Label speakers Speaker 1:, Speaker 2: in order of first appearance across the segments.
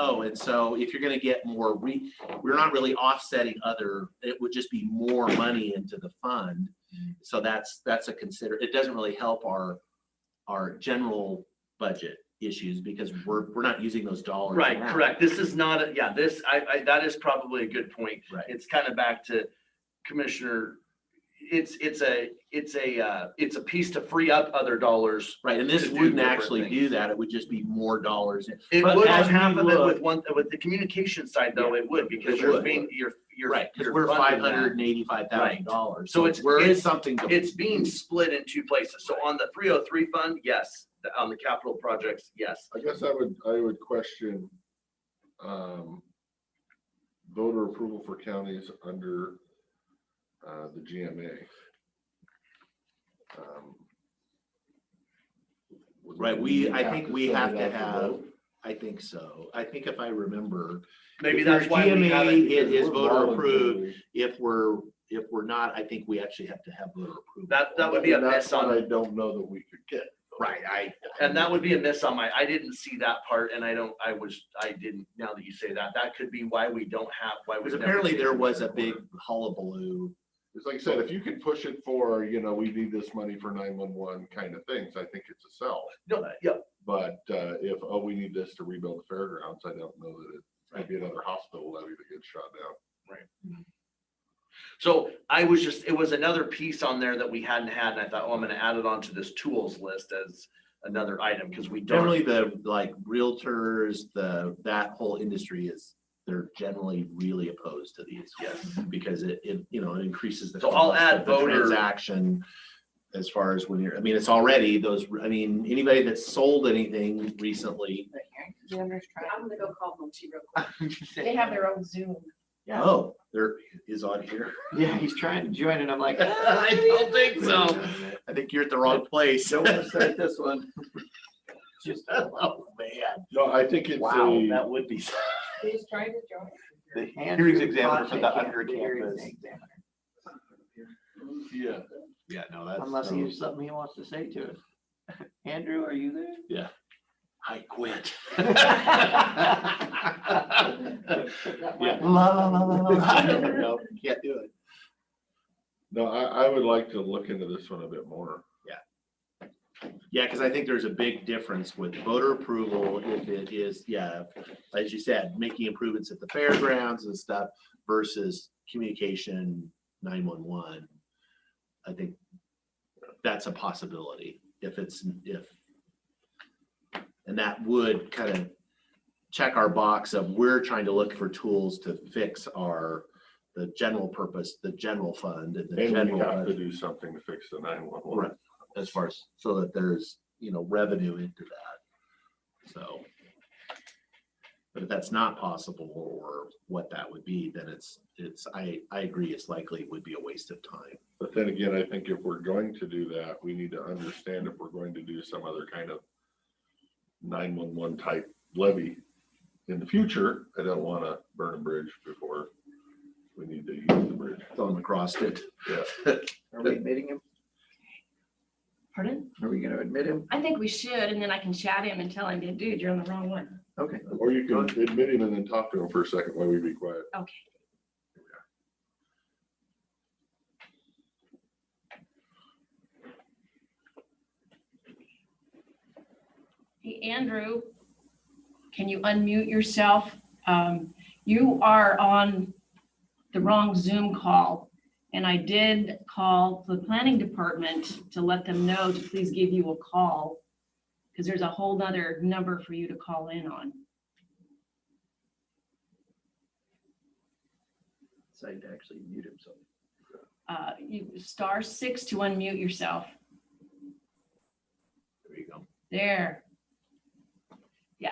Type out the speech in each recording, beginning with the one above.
Speaker 1: Oh, and so if you're gonna get more, we, we're not really offsetting other, it would just be more money into the fund. So that's, that's a consider, it doesn't really help our, our general budget issues because we're, we're not using those dollars.
Speaker 2: Right,
Speaker 1: now.
Speaker 2: correct. This is not, a yeah, this, I, I, that is probably a good point.
Speaker 1: Right.
Speaker 2: It's kind of back to Commissioner, it's, it's a, it's a, uh, it's a piece to free up other dollars.
Speaker 1: Right, and this
Speaker 2: To do
Speaker 1: wouldn't
Speaker 2: different
Speaker 1: actually do
Speaker 2: things.
Speaker 1: that. It would just be more dollars. in-
Speaker 2: It
Speaker 3: But
Speaker 2: would
Speaker 3: as
Speaker 2: on half
Speaker 3: we
Speaker 2: of it with
Speaker 3: look-
Speaker 2: one, with the communication side though, it would because
Speaker 1: It
Speaker 2: you're
Speaker 1: would.
Speaker 2: being, you're, you're.
Speaker 1: Right, because
Speaker 2: you're
Speaker 1: we're
Speaker 2: funding
Speaker 1: five
Speaker 2: that.
Speaker 1: hundred and eighty-five thousand dollars.
Speaker 2: So it's-
Speaker 1: We're in
Speaker 2: it's-
Speaker 1: something. to-
Speaker 2: It's being split in two places. So on the three oh three fund, yes. The- On the capital projects, yes.
Speaker 4: I guess I would, I would question um, voter approval for counties under uh, the GMA. Um, would
Speaker 1: Right, we- I
Speaker 4: have
Speaker 1: think
Speaker 4: to
Speaker 1: we
Speaker 4: send it
Speaker 1: have to
Speaker 4: out
Speaker 1: have-
Speaker 4: vote?
Speaker 1: I think so. I think if I remember,
Speaker 2: Maybe
Speaker 1: If
Speaker 2: that's
Speaker 1: your
Speaker 2: why we
Speaker 1: GMA
Speaker 2: have it.
Speaker 1: It is
Speaker 4: We're
Speaker 1: voter approved.
Speaker 4: voluntary.
Speaker 1: if we're, if we're not, I think we actually have to have voter approval.
Speaker 2: That, that would be a
Speaker 4: And that's
Speaker 2: mess on
Speaker 4: what I don't know that we could get.
Speaker 1: Right, I.
Speaker 2: And that would be a miss on my, I didn't see that part and I don't, I was, I didn't, now that you say that, that could be why we don't have, why.
Speaker 1: Because
Speaker 2: we've never
Speaker 1: apparently
Speaker 2: seen
Speaker 1: there
Speaker 2: it
Speaker 1: was a
Speaker 2: before.
Speaker 1: big hullabaloo.
Speaker 4: It's like I said, if you could push it for, you know, we need this money for nine-one-one kind of things, I think it's a sell.
Speaker 2: No, yeah,
Speaker 4: But uh, if, oh, we need this to rebuild the fairgrounds, I don't know that it, might be another hospital levy that gets shot down.
Speaker 2: so I was just, it was another piece on there that we hadn't had and I thought, oh, I'm gonna add it onto this tools list as another item, because we don't.
Speaker 1: Generally, the, like realtors, the, that whole industry is, they're generally really opposed to these.
Speaker 2: Yes,
Speaker 1: Because it, it, you know, it increases the.
Speaker 2: So I'll
Speaker 1: cost
Speaker 2: add
Speaker 1: of the
Speaker 2: voter-
Speaker 1: Transaction as far as when you're, I mean, it's already those, I mean, anybody that's sold anything recently.
Speaker 5: I'm gonna go call Munchie real quick. They have their own Zoom.
Speaker 3: Yeah.
Speaker 1: Oh, there is on here.
Speaker 3: Yeah, he's trying to join and I'm like. "Ah."
Speaker 1: I don't think so. I think you're at the wrong place.
Speaker 3: Don't want to start this one.
Speaker 1: Just, Oh, man.
Speaker 4: No, I think it's
Speaker 1: Wow,
Speaker 4: a,
Speaker 1: that would be.
Speaker 5: Who's trying to join?
Speaker 3: The Andrews examiner
Speaker 6: Project
Speaker 3: for the
Speaker 6: can't
Speaker 3: under
Speaker 6: be very
Speaker 3: campus.
Speaker 6: exam-
Speaker 4: yeah,
Speaker 1: Yeah, no, that's.
Speaker 3: Unless
Speaker 1: no.
Speaker 3: he has something he wants to say to us. Andrew, are you there?
Speaker 1: I quit.
Speaker 5: That
Speaker 1: Yeah.
Speaker 5: one?
Speaker 3: La, la, la, la, la.
Speaker 1: No, Can't do it.
Speaker 4: no, I, I would like to look into this one a bit more.
Speaker 1: Yeah, because I think there's a big difference with voter approval if it is, yeah, as you said, making improvements at the fairgrounds and stuff versus communication nine-one-one. I think that's a possibility if it's, if. And that would kind of check our box of we're trying to look for tools to fix our, the general purpose, the general fund and the
Speaker 4: And
Speaker 1: general.
Speaker 4: we have to
Speaker 1: budget.
Speaker 4: do something to fix the
Speaker 1: Right,
Speaker 4: nine-one-one.
Speaker 1: as far as, so that there's, you know, revenue into that. So. But if that's not possible or what that would be, then it's, it's, I, I agree, it's likely would be a waste of time.
Speaker 4: But then again, I think if we're going to do that, we need to understand if we're going to do some other kind of nine-one-one type levy in the future, I don't want to burn a bridge before we need to use the bridge.
Speaker 1: Throw them across it.
Speaker 3: Are we admitting him?
Speaker 5: Pardon?
Speaker 3: Are we gonna admit him?
Speaker 5: I think we should, and then I can chat him and tell him, dude, you're on the wrong one.
Speaker 3: Okay.
Speaker 4: Or you can admit him and then talk to him for a second while we be quiet.
Speaker 5: Okay. Hey, Andrew, can you unmute yourself? Um, You are on the wrong Zoom call. And I did call the planning department to let them know to please give you a call because there's a whole nother number for you to call in on.
Speaker 3: Decided to actually mute himself.
Speaker 5: Uh, you, star six to unmute yourself.
Speaker 1: There you go.
Speaker 5: There. Yeah.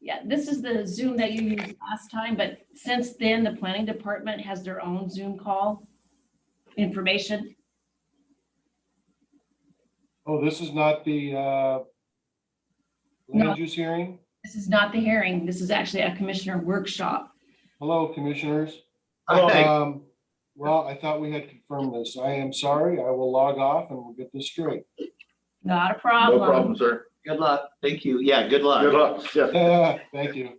Speaker 5: Yeah, this is the Zoom that you used last time, but since then, the planning department has their own Zoom call information.
Speaker 7: Oh, this is not the uh,
Speaker 5: No.
Speaker 7: land use hearing?
Speaker 5: This is not the hearing. This is actually a commissioner workshop.
Speaker 7: Hello, commissioners.
Speaker 1: uh,
Speaker 3: Hey,
Speaker 7: Um, Well, I thought we had confirmed this. I am sorry. I will log off and we'll get this straight.
Speaker 5: Not a
Speaker 4: No
Speaker 5: problem.
Speaker 4: problem, sir.
Speaker 3: Good luck.
Speaker 1: Thank you. Yeah, good luck.
Speaker 4: Good luck. Yeah.
Speaker 7: Thank you.